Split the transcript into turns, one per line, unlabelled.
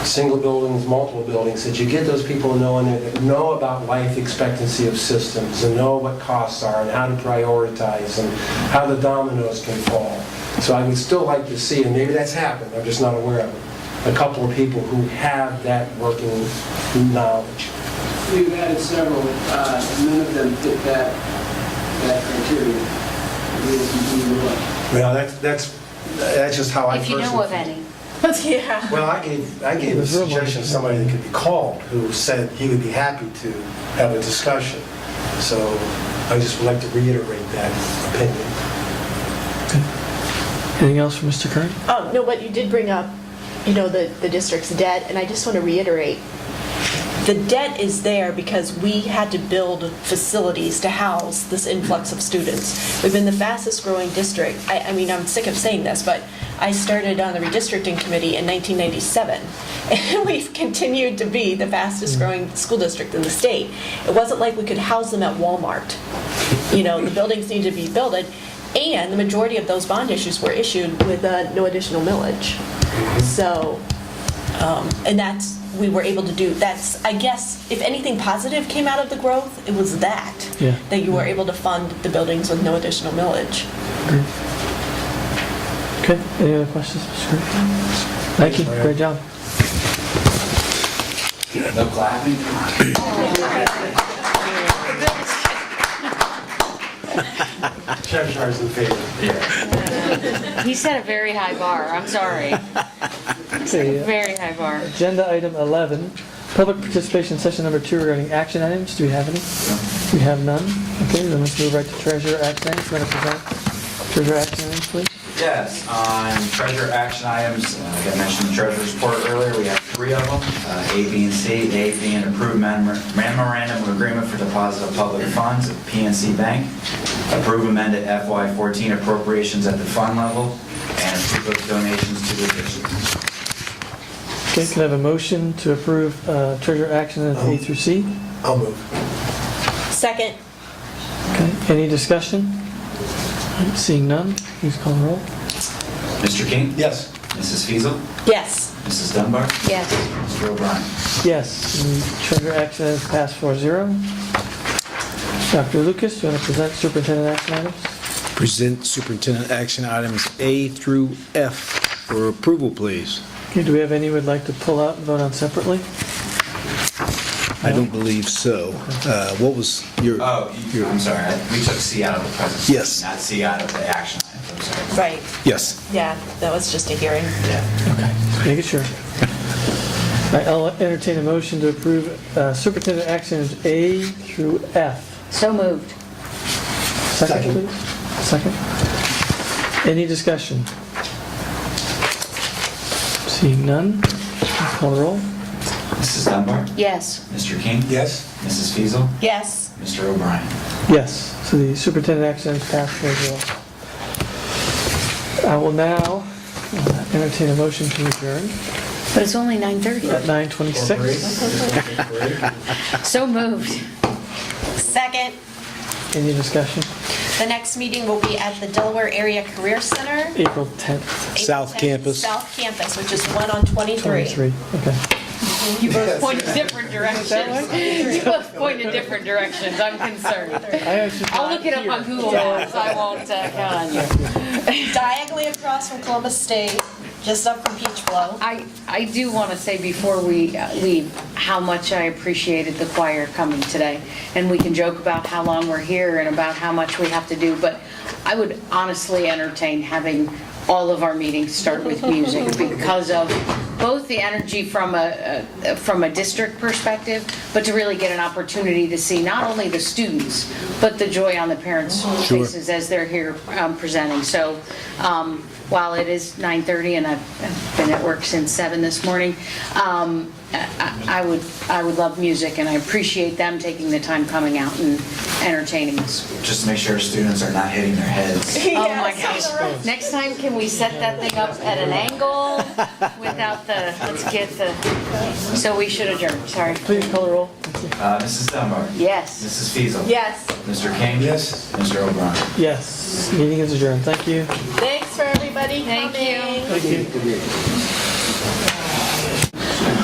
single buildings, multiple buildings, that you get those people knowing, that know about life expectancy of systems, and know what costs are, and how to prioritize, and how the dominoes can fall. So I would still like to see, and maybe that's happened, I'm just not aware of it, a couple of people who have that working knowledge.
We've added several, uh, and none of them fit that, that criteria. We- we- we look.
Well, that's, that's, that's just how I
If you
personally...
know of any.
Yeah.
Well, I gave, I gave a suggestion, of somebody that could be called, who said he would be happy to have a discussion. So I just would like to reiterate that opinion.
Anything else for Mr. Curran?
Um, no, but you did bring up, you know, the, the district's debt, and I just want to reiterate, the debt is there because we had to build facilities to house this influx of students. We've been the fastest growing district. I, I mean, I'm sick of saying this, but I started on the redistricting committee in 1997. And we've continued to be the fastest growing school district in the state. It wasn't like we could house them at Walmart. You know, the buildings need to be built, and the majority of those bond issues were issued with uh, no additional millage. So, um, and that's, we were able to do, that's, I guess, if anything positive came out of the growth, it was that.
Yeah.
That you were able to fund the buildings with no additional millage.
Okay, any other questions, Mr. Curran? Thank you, great job.
No clapping?
Cheshire is in favor.
Yeah.
He set a very high bar, I'm sorry.
Okay, uh,
Very high bar.
Agenda item 11, public participation session number two regarding action items. Do we have any? We have none. Okay, then let's move right to treasurer action items. Want to present treasurer action items, please?
Yes, on treasure action items, uh, like I mentioned the treasurer's report earlier, we have three of them, uh, A, B, and C. A being approved memor- memorandum of agreement for deposit of public funds at PNC Bank, approve amended FY14 appropriations at the fund level, and approve of donations to the district.
Okay, can I have a motion to approve uh, treasurer action items A through C?
I'll move.
Second,
Okay, any discussion? Seeing none, please call the roll.
Mr. King?
Yes.
Mrs. Feasel?
yes.
Mrs. Dunbar?
Yes.
Mr. O'Brien?
Yes, and treasurer action items pass 4-0. Dr. Lucas, do you want to present superintendent action items?
Present superintendent action items A through F for approval, please.
Okay, do we have any we'd like to pull out and vote on separately?
I don't believe so. Uh, What was your?
Oh, you-
your-
I'm sorry, I- we took C out of the presentation.
Yes.
Not C out of the action items, I'm sorry.
Right,
Yes.
yeah, that was just a hearing.
Yeah.
Making sure. All right, I'll entertain a motion to approve uh, superintendent actions A through F.
So moved.
Second,
Second.
please. Second. Any discussion? Seeing none, please call the roll.
Mrs. Dunbar?
Yes.
Mr. King?
Yes?
Mrs. Fiesel,
Yes,
Mr. O'Brien?
Yes, so the superintendent action items pass four zero. I will now uh, entertain a motion to adjourn
But it's only
at
9:30.
9:26.
So moved.
second.
Any discussion?
The next meeting will be at the Delaware Area Career Center.
April 10th,
April
South
10th,
Campus.
South Campus, which is one on 23.
23, okay.
You both pointed different directions. You both pointed different directions, I'm concerned.
I actually
I'll look it up on Google Maps, I won't uh, count on you.
Diagonally across from Columbus State, just up from Peach Blow.
I, I do want to say before we uh, leave, how much I appreciated the choir coming today. And we can joke about how long we're here and about how much we have to do, but I would honestly entertain having all of our meetings start with music because of both the energy from a, a- from a district perspective, but to really get an opportunity to see not only the students, but the joy on the parents' faces as they're here um, presenting. So um, while it is 9:30 and I've I've been at work since 7 this morning, um, I- I I would, I would love music and I appreciate them taking the time coming out and entertaining us.
Just to make sure students are not hitting their heads.
Oh, my gosh. Next time, can we set that thing up at an angle without the, let's get the, so we should adjourn, sorry.
Please call the roll.
Uh, Mrs. Dunbar?
Yes.
Mrs. Fiesel,
Yes,
Mr. King?
Yes.
Mr. O'Brien?
Yes, meeting is adjourned, thank you.
thanks for everybody coming.
Thank you.
Thank you.